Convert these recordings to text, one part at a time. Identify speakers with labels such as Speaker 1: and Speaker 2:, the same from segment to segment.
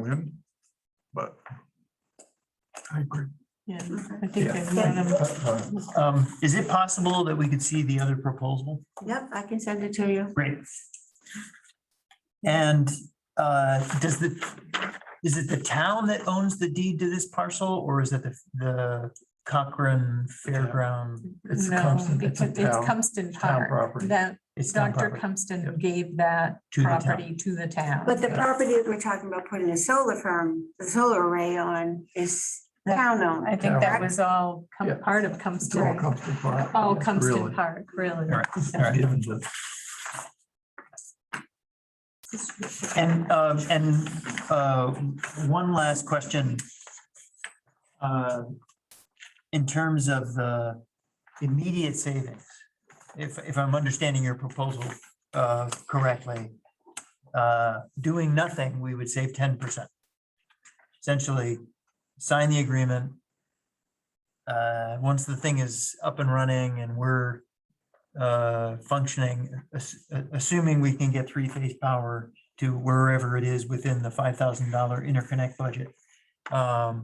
Speaker 1: win, but I agree.
Speaker 2: Yeah,
Speaker 3: Okay.
Speaker 2: I think
Speaker 1: Yeah. Uh,
Speaker 2: they've known them.
Speaker 4: Um, is it possible that we could see the other proposal?
Speaker 3: Yep, I can send it to you.
Speaker 4: Great. And, uh, does the, is it the town that owns the deed to this parcel or is it the, the Cochrane Fairground?
Speaker 1: It's
Speaker 2: No,
Speaker 1: Cumston, it's
Speaker 2: because
Speaker 1: a
Speaker 2: it's
Speaker 1: town-
Speaker 2: Cumston
Speaker 1: town
Speaker 2: Park.
Speaker 1: property.
Speaker 2: That
Speaker 4: It's town
Speaker 2: Dr.
Speaker 4: property
Speaker 2: Cumston
Speaker 1: Yep.
Speaker 2: gave that
Speaker 4: to the town.
Speaker 2: property to the town.
Speaker 3: But the property that we're talking about putting a solar farm, the solar array on is
Speaker 2: That-
Speaker 3: town owned.
Speaker 2: I think that
Speaker 3: Correct.
Speaker 2: was all cum-
Speaker 1: Yeah.
Speaker 2: part of
Speaker 1: It's all
Speaker 2: Cumston,
Speaker 1: Compton Park.
Speaker 2: all Cumston
Speaker 1: Really.
Speaker 2: Park, really.
Speaker 4: All right,
Speaker 2: So-
Speaker 4: all right.
Speaker 1: Given the-
Speaker 4: And, um, and, uh, one last question. Uh, In terms of the immediate savings, if, if I'm understanding your proposal, uh, correctly, uh, doing nothing, we would save ten percent. Essentially, sign the agreement. Uh, once the thing is up and running and we're, uh, functioning, ass- assuming we can get three-phase power to wherever it is within the five thousand dollar interconnect budget. Um,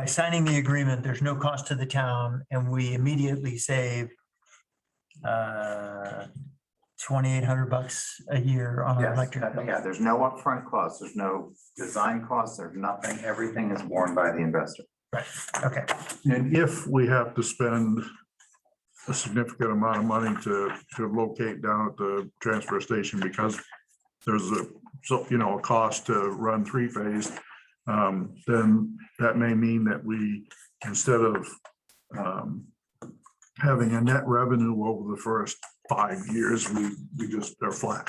Speaker 4: By signing the agreement, there's no cost to the town and we immediately save uh, twenty-eight hundred bucks a year on our
Speaker 5: Yes,
Speaker 4: electric.
Speaker 5: nothing-
Speaker 4: bill.
Speaker 5: yeah, there's no upfront costs, there's no design costs, there's nothing, everything is borne by the investor.
Speaker 4: Okay,
Speaker 1: And if we have to spend a significant amount of money to, to locate down at the transfer station because there's a, so, you know, a cost to run three phase, um, then that may mean that we, instead of, um, having a net revenue over the first five years, we, we just are flat,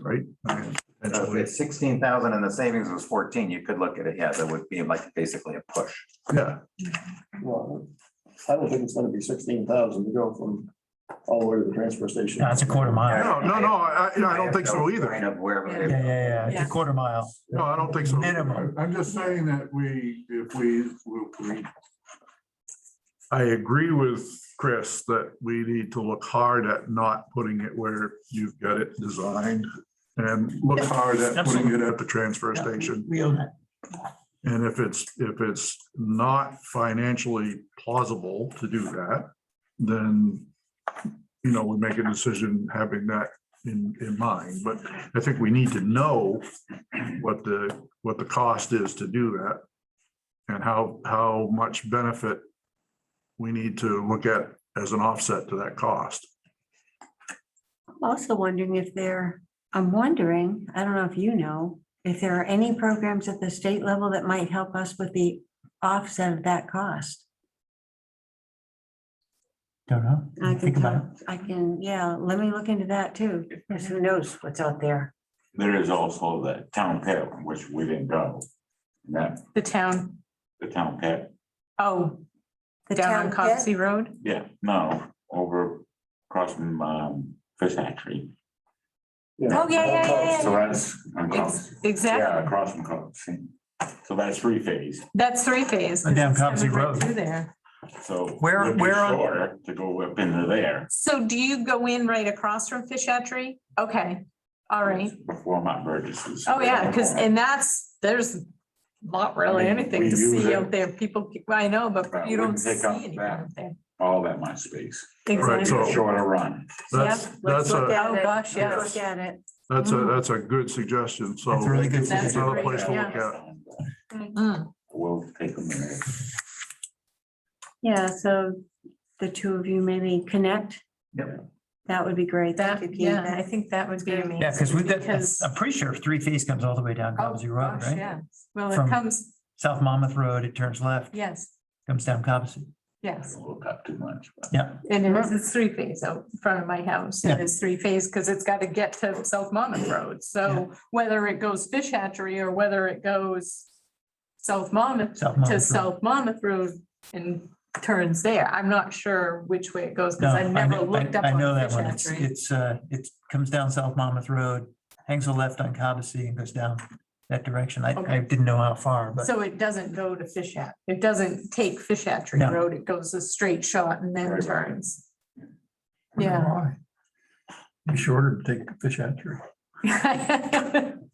Speaker 1: right? I mean,
Speaker 5: So
Speaker 1: potentially,
Speaker 5: It's sixteen thousand and the savings was fourteen, you could look at it, yeah, that would be like basically a push.
Speaker 1: Yeah,
Speaker 6: Well, I don't think it's gonna be sixteen thousand to go from all the way to the transfer station.
Speaker 4: No, it's a quarter mile.
Speaker 1: no, no, no, I, I I don't think so either.
Speaker 5: Kind of wherever.
Speaker 4: Yeah,
Speaker 5: they-
Speaker 4: yeah, yeah, it's a
Speaker 2: Yeah.
Speaker 4: quarter mile.
Speaker 1: No, I don't think so.
Speaker 4: Minimum.
Speaker 1: I'm just saying that we, if we, we. I agree with Chris that we need to look hard at not putting it where you've got it designed. And look hard at putting it at the transfer station.
Speaker 4: We own it.
Speaker 1: And if it's, if it's not financially plausible to do that, then, you know, we make a decision having that in, in mind. But I think we need to know what the, what the cost is to do that and how, how much benefit we need to look at as an offset to that cost.
Speaker 3: I'm Also wondering if there, I'm wondering, I don't know if you know, if there are any programs at the state level that might help us with the offset of that cost.
Speaker 4: Don't know.
Speaker 3: I can,
Speaker 4: Think about it.
Speaker 3: tell- I can, yeah, let me look into that too, because who knows what's out there.
Speaker 7: There is also the town pit, which we didn't go. And that,
Speaker 2: The town,
Speaker 7: the town pit,
Speaker 2: oh,
Speaker 3: The
Speaker 2: down
Speaker 3: town
Speaker 2: on
Speaker 3: pit,
Speaker 2: Coxsey Road?
Speaker 7: yeah, no, over across from um, Fish Hatchery.
Speaker 2: Oh, yeah, yeah, yeah, yeah,
Speaker 7: So
Speaker 2: yeah.
Speaker 7: that's.
Speaker 1: Oh,
Speaker 7: on
Speaker 2: Ex-
Speaker 7: Cox. Yeah,
Speaker 2: Exactly.
Speaker 7: across from Cox. So that's three phase,
Speaker 2: That's three phase.
Speaker 4: And down
Speaker 2: It's coming
Speaker 4: Coxsey
Speaker 2: right
Speaker 4: Road.
Speaker 2: Through there.
Speaker 7: so.
Speaker 4: Where-
Speaker 7: it'd be
Speaker 4: where on-
Speaker 7: shorter To go up into there.
Speaker 2: So do you go in right across from Fish Hatchery? Okay, all right.
Speaker 7: Before Mount Burgess's.
Speaker 2: Oh, yeah, because, and that's, there's not really
Speaker 7: I mean,
Speaker 2: anything
Speaker 7: we
Speaker 2: to
Speaker 7: use
Speaker 2: see
Speaker 7: it.
Speaker 2: out there. People, I know, but
Speaker 7: Right,
Speaker 2: you
Speaker 7: we
Speaker 2: don't
Speaker 7: can
Speaker 2: see
Speaker 7: pick up
Speaker 2: anything
Speaker 7: that.
Speaker 2: out there.
Speaker 7: All that much space,
Speaker 1: Right, so-
Speaker 2: Exactly.
Speaker 7: shorter run.
Speaker 1: That's,
Speaker 2: Yep,
Speaker 1: that's
Speaker 3: let's look
Speaker 1: a,
Speaker 3: at
Speaker 2: Oh,
Speaker 3: it.
Speaker 2: gosh, yes.
Speaker 3: Let's Look at it.
Speaker 1: that's a, that's a good suggestion. So.
Speaker 4: That's a really good
Speaker 2: That's
Speaker 1: Another
Speaker 2: great,
Speaker 1: place to look
Speaker 2: yeah.
Speaker 1: at.
Speaker 2: Mm.
Speaker 7: We'll take a minute.
Speaker 3: Yeah, so the two of you maybe connect.
Speaker 5: Yep.
Speaker 3: That would be great. Thank
Speaker 2: That,
Speaker 3: you, Keith.
Speaker 2: yeah, I think that would be amazing.
Speaker 4: Yeah, because we've got,
Speaker 2: because-
Speaker 4: I'm pretty sure three phase comes all the way down
Speaker 2: Oh,
Speaker 4: Cobbsey Road,
Speaker 2: gosh,
Speaker 4: right?
Speaker 2: yeah. Well, it
Speaker 4: From-
Speaker 2: comes,
Speaker 4: South Monmouth Road, it turns left,
Speaker 2: yes,
Speaker 4: comes down Cobbsey.
Speaker 2: yes.
Speaker 7: We'll cut too much. but-
Speaker 4: Yeah,
Speaker 2: And it is, it's three phase out in front of my house.
Speaker 4: Yeah.
Speaker 2: It is three phase because it's got to get to South Monmouth Road. So whether it goes Fish Hatchery or whether it goes South Monmouth
Speaker 4: South
Speaker 2: to
Speaker 4: Monmouth. Road.
Speaker 2: South Monmouth Road and turns there. I'm not sure which way it goes
Speaker 4: No,
Speaker 2: because I've
Speaker 4: I
Speaker 2: never
Speaker 4: know- I-
Speaker 2: looked up
Speaker 4: I know
Speaker 2: on
Speaker 4: that
Speaker 2: Fish
Speaker 4: one. It's,
Speaker 2: Hatchery.
Speaker 4: it's, uh, it comes down South Monmouth Road, hangs a left on Cobbsey and goes down that direction. I, I
Speaker 2: Okay.
Speaker 4: didn't know how far, but
Speaker 2: So it doesn't go to Fish Hat, it doesn't take Fish Hatchery
Speaker 4: No.
Speaker 2: Road. It goes a straight shot and then
Speaker 7: Right.
Speaker 2: turns. Yeah.
Speaker 6: Be shorter to take the fish hatchery.